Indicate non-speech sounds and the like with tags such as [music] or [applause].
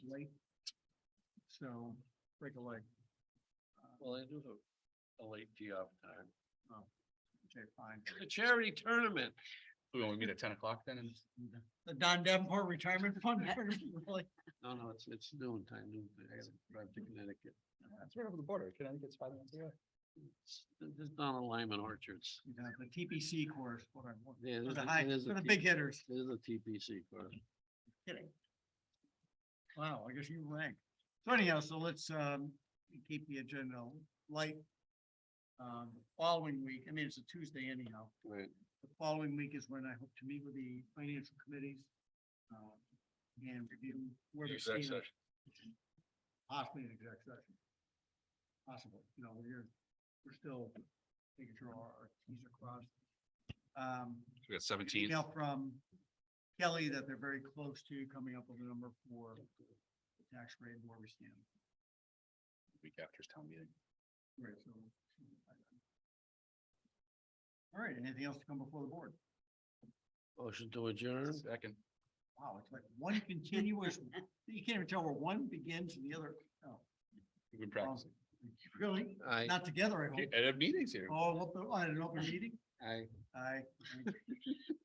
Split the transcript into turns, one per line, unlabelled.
so recollect.
Well, I do have a late tee off time. [laughs]
oh, Okay, fine.
A charity tournament.
We only meet at ten o'clock then, and
The Don Davenport Retirement Fund. [laughs] Really?
No, no, it's, it's noon time, noon. time. I gotta drive to Connecticut.
that's right over the border, Connecticut's five minutes away.
It's- There's not a Lyman Orchards.
You know, The TPC course, what I want.
Yeah,
For
there's
the
a-
high,
there's
for
a
the
T-
big hitters.
There's a TPC course.
Kidding. Wow, I guess you rank. So anyhow, so let's um keep the agenda light. Um, following week, I mean, it's a Tuesday anyhow.
Right.
The following week is when I hope to meet with the financial committees. um, And review where we
Exec
stand. Possibly an exec session. Possible, you know, we're, we're still making sure all our Ts are crossed. Um,
We got seventeen.
email from Kelly that they're very close to coming up with a number for the tax rate and where we stand.
Week after town meeting.
Right, so. All right, anything else to come before the board?
Motion to adjourn.
Second.
Wow, it's like one continuous, you can't even tell where one begins and the other, oh,
We've been practicing.
really?
Aye.
Not together, I hope.
At meetings here.
Oh, what the- oh, at an open meeting?
Aye.
I,